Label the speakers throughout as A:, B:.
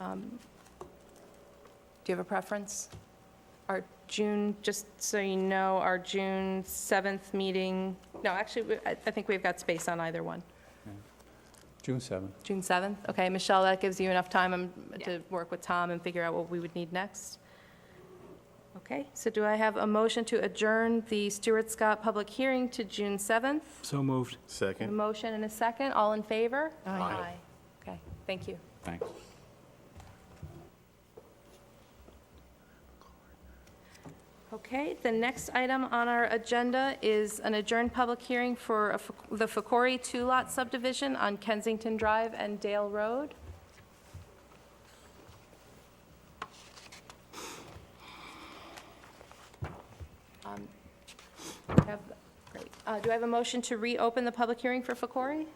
A: Um, Do you have a preference? Our June, just so you know, our June 7th meeting, no, actually, we- I I think we've got space on either one.
B: June 7th.
A: June 7th? Okay, Michelle, that gives you enough time um,
C: Yeah.
A: to work with Tom and figure out what we would need next. Okay, so do I have a motion to adjourn the Stewart Scott public hearing to June 7th?
D: So moved.
A: A
E: Second.
A: motion and a second, all in favor?
E: Aye. Aye.
A: Okay, thank you.
B: Thanks.
A: Okay, the next item on our agenda is an adjourned public hearing for a f- the Fakori two-lot subdivision on Kensington Drive and Dale Road. Um, I have- Great. Uh, Do I have a motion to reopen the public hearing for Fakori?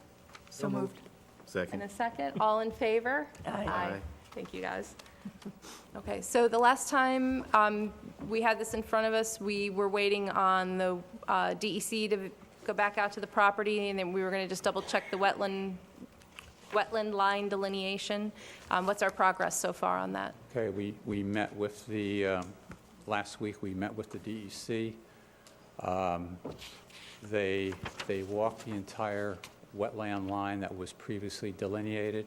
C: So moved.
A: And a
E: Second.
A: second, all in favor?
E: Aye.
A: Thank you, guys. Okay, so the last time um, we had this in front of us, we were waiting on the uh, DEC to go back out to the property, and then we were going to just double-check the wetland, wetland line delineation. Um, What's our progress so far on that?
B: Okay, we, we met with the, um, last week, we met with the DEC. Um, They, they walked the entire wetland line that was previously delineated.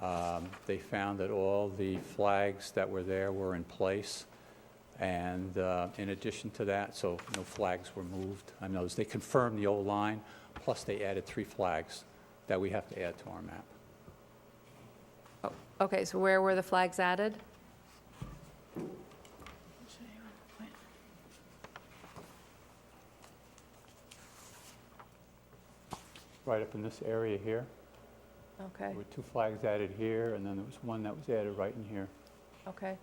B: Um, They found that all the flags that were there were in place. And uh, in addition to that, so no flags were moved. I noticed, they confirmed the old line, plus they added three flags that we have to add to our map.
A: Oh, Okay, so where were the flags added?
B: Right up in this area here.
A: Okay,
B: There were two flags added here, and then there was one that was added right in here.
A: okay.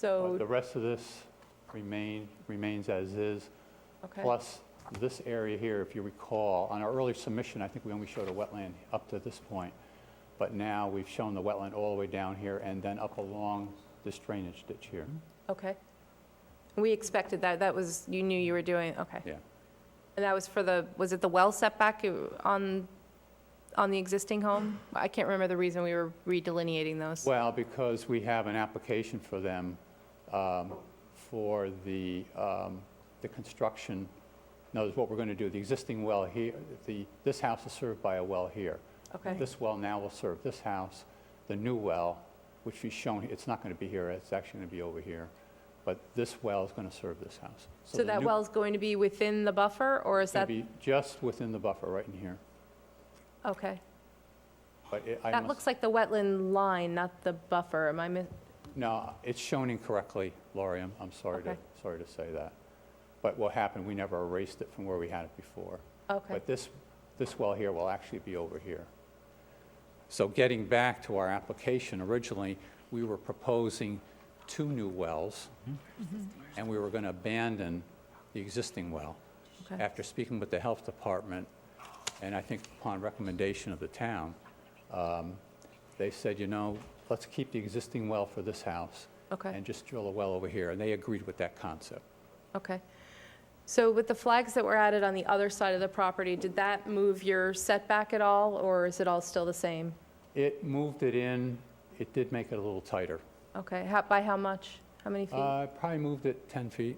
B: But the
A: So,
B: rest of this remain, remains as is,
A: okay.
B: plus this area here, if you recall, on our earlier submission, I think we only showed a wetland up to this point, but now we've shown the wetland all the way down here and then up along this drainage ditch here.
A: Okay. We expected that, that was, you knew you were doing, okay.
B: Yeah.
A: And that was for the, was it the well setback on, on the existing home? I can't remember the reason we were redelineating those.
B: Well, because we have an application for them um, for the, um, the construction, in other words, what we're going to do, the existing well here, the, this house is served by a well here.
A: Okay.
B: This well now will serve this house. The new well, which is shown, it's not going to be here, it's actually going to be over here, but this well is going to serve this house.
A: So
B: the
A: that
B: new-
A: well's going to be within the buffer, or is
B: It's
A: that,
B: going to be just within the buffer, right in here.
A: okay.
B: But it- I
A: That
B: must-
A: looks like the wetland line, not the buffer, am I mis,
B: No, it's shown incorrectly, Laurie, I'm, I'm sorry to,
A: Okay.
B: sorry to say that. But what happened, we never erased it from where we had it before.
A: okay,
B: But this, this well here will actually be over here. So getting back to our application, originally, we were proposing two new wells,
A: Mm-hmm.
B: and we were going to abandon the existing well.
A: okay,
B: After speaking with the health department, and I think upon recommendation of the town, um, they said, you know, let's keep the existing well for this house
A: okay,
B: and just drill a well over here, and they agreed with that concept.
A: okay. So with the flags that were added on the other side of the property, did that move your setback at all, or is it all still the same?
B: It moved it in, it did make it a little tighter.
A: Okay, how, by how much? How many feet?
B: Uh, Probably moved it 10 feet.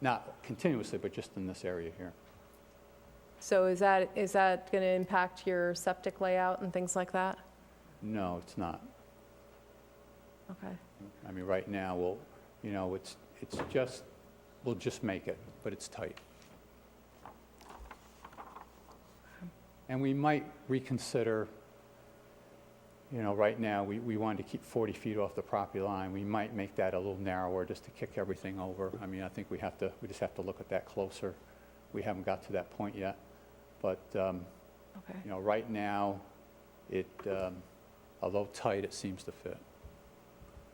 B: Not continuously, but just in this area here.
A: So is that, is that going to impact your septic layout and things like that?
B: No, it's not.
A: Okay,
B: I mean, right now, we'll, you know, it's, it's just, we'll just make it, but it's tight. And we might reconsider, you know, right now, we, we wanted to keep 40 feet off the property line. We might make that a little narrower just to kick everything over. I mean, I think we have to, we just have to look at that closer. We haven't got to that point yet. But, um,
A: okay.
B: you know, right now, it, um, although tight, it seems to fit.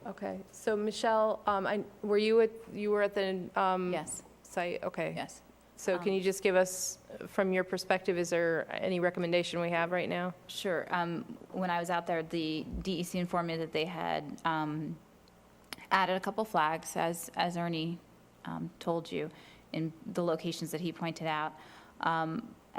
A: Okay, so Michelle, um, I, were you at, you were at the, um,
C: Yes,
A: site, okay.
C: yes.
A: So can you just give us, from your perspective, is there any recommendation we have right now?
C: Sure. Um, When I was out there, the DEC informed me that they had um, added a couple flags, as, as Ernie um, told you, in the locations that he pointed out. Um,